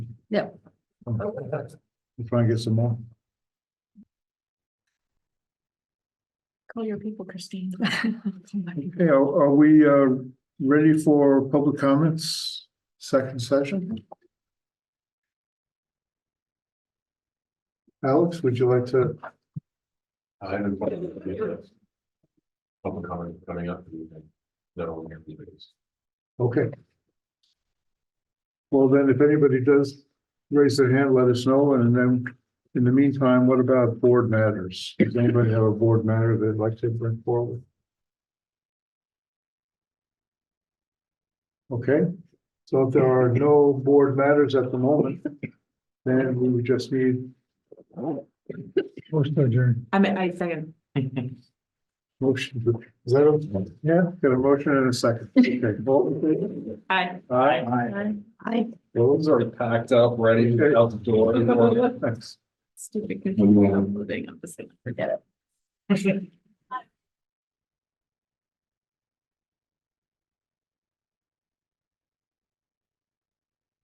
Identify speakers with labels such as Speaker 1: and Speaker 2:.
Speaker 1: Yeah.
Speaker 2: You trying to get some more?
Speaker 1: Call your people, Christine.
Speaker 2: Okay, are, are we, uh, ready for public comments, second session? Alex, would you like to?
Speaker 3: I have a question. for you, yes. Public comment coming up. for the evening. That will be the biggest.
Speaker 2: Okay. Well, then, if anybody does raise their hand, let us know, and then, in the meantime, what about board matters? Does anybody have a board matter they'd like to bring forward? Okay, so if there are no board matters at the moment, then we would just need. Motion adjourned.
Speaker 1: I mean, I second.
Speaker 2: Motion, to- is that, a- yeah, got a motion and a second. Okay, vote.
Speaker 1: Hi.
Speaker 2: Aye.
Speaker 1: Hi.
Speaker 2: Those are
Speaker 3: Packed up, ready
Speaker 2: to
Speaker 3: out the door.
Speaker 2: Thanks.
Speaker 1: Stupid. Moving on, forget it.